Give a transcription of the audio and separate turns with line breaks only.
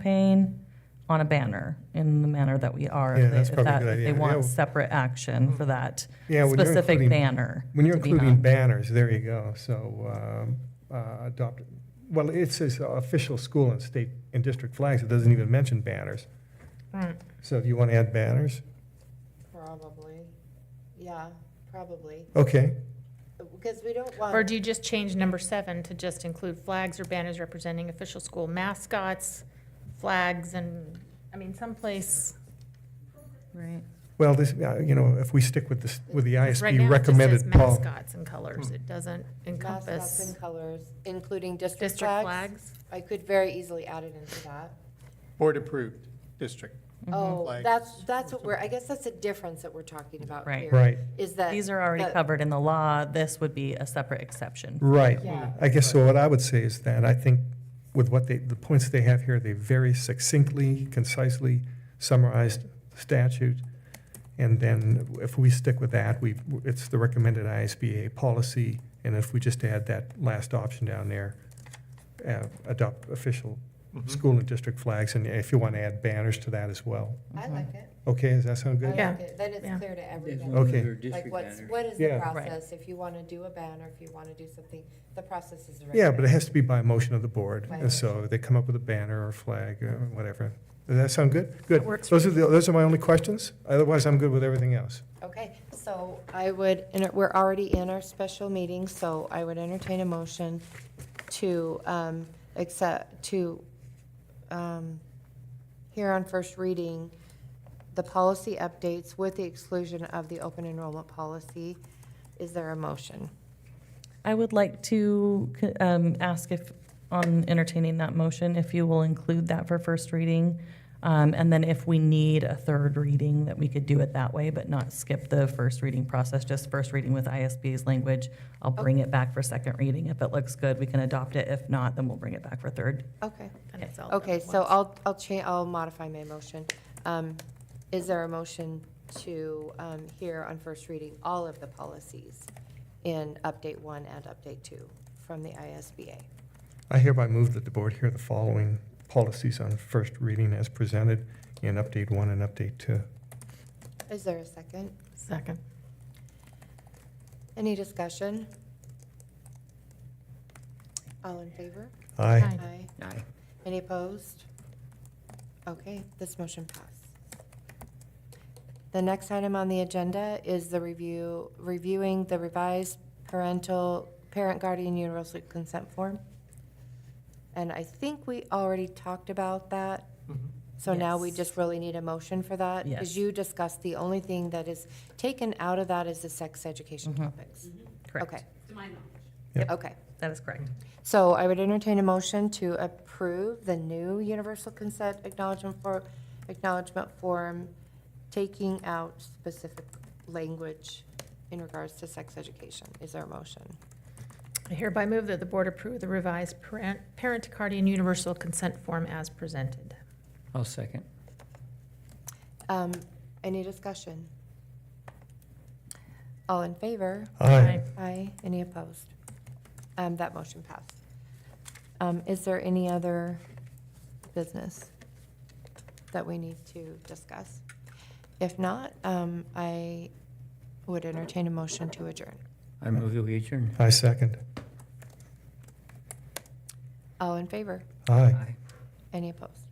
campaign on a banner in the manner that we are.
Yeah,
if they-
that's
if
probably a
that-
good idea.
If they
Yeah.
want separate action for that
Yeah, when you're
specific
including-
banner.
When you're
to be
including
hung.
banners, there you go, so, um, uh, adopt, well, it says official school and state and district flags, it doesn't even mention banners.
Right.
So if you want to add banners,
Probably, yeah, probably,
okay,
because we don't want.
Or do you just change number seven to just include flags or banners representing official school mascots, flags and, I mean, someplace.
Right.
well, this, uh, you know, if we stick with this, with the
Right now,
ISB
it just says
recommended, Paul.
Mascots and colors. It doesn't
Mascots
encompass
and colors, including district
district
flags.
flags.
I could very easily add it into that.
Board-approved district.
Oh,
Flags
that's, that's what we're, I guess that's a difference that we're talking about
Right.
here.
Right,
Is that.
These are already
that-
covered in the law. This would be a separate exception.
right.
Yeah.
I guess so what I would say is that I think with what they, the points they have here, they very succinctly, concisely summarized the statute. And then if we stick with that, we, it's the recommended ISBA policy. And if we just add that last option down there, uh, adopt official school and district flags. And if you want to add banners to that as well.
I like it.
Okay, does that sound
I
good?
like
Yeah.
it. Then it's
Yeah.
clear to
As
everyone.
long as
Okay.
they're
Like
district
what's,
banners.
what is the
Yeah. Right.
process? If you want to do a banner, if you want to do something, the process is.
Yeah, but it
recommended.
has to be by motion of the board,
Right.
and so they come up with a banner or flag or whatever. Does that sound good? Good.
That works
Those are, the- those are my only questions. Otherwise, I'm good with everything else.
Okay, so I would, and we're already in our special meeting, so I would entertain a motion to um, accept, to um, hear on first reading the policy updates with the exclusion of the open enrollment policy. Is there a motion?
I would like to um, ask if, on entertaining that motion, if you will include that for first reading. um, And then if we need a third reading, that we could do it that way, but not skip the first reading process, just first reading with ISB's language. I'll bring it back for second reading. If it looks good, we can adopt it. If not, then we'll bring it back for third.
Okay,
and it's all done
okay,
at
so
once.
I'll, I'll change, I'll modify my motion. Um, Is there a motion to um, hear on first reading all of the policies in update one and update two from the ISBA?
I hereby move that the board hear the following policies on first reading as presented in update one and update two.
Is there a second?
Second.
Any discussion? All in favor?
Aye.
Aye.
Aye. Any opposed? Okay, this motion passed. The next item on the agenda is the review, reviewing the revised parental, parent guardian universal consent form. And I think we already talked about that, so now we
Yes.
just really need a motion for that. Because
Yes.
you discussed, the only thing that is taken out of that is the sex education
Mhm.
topics.
Correct.
Okay.
Yep.
Okay.
That is correct.
So I would entertain a motion to approve the new universal consent acknowledgement for, acknowledgement form, taking out specific language in regards to sex education. Is there a motion?
I hereby move that the board approve the revised parent, parent guardian universal consent form as presented.
I'll second.
Um, Any discussion? All in favor?
Aye.
Aye. Any opposed? Um, That motion passed. Um, Is there any other business that we need to discuss? If not, um, I would entertain a motion to adjourn.
I move that we adjourn.
I second.
All in favor?
Aye.
Aye.
Any opposed?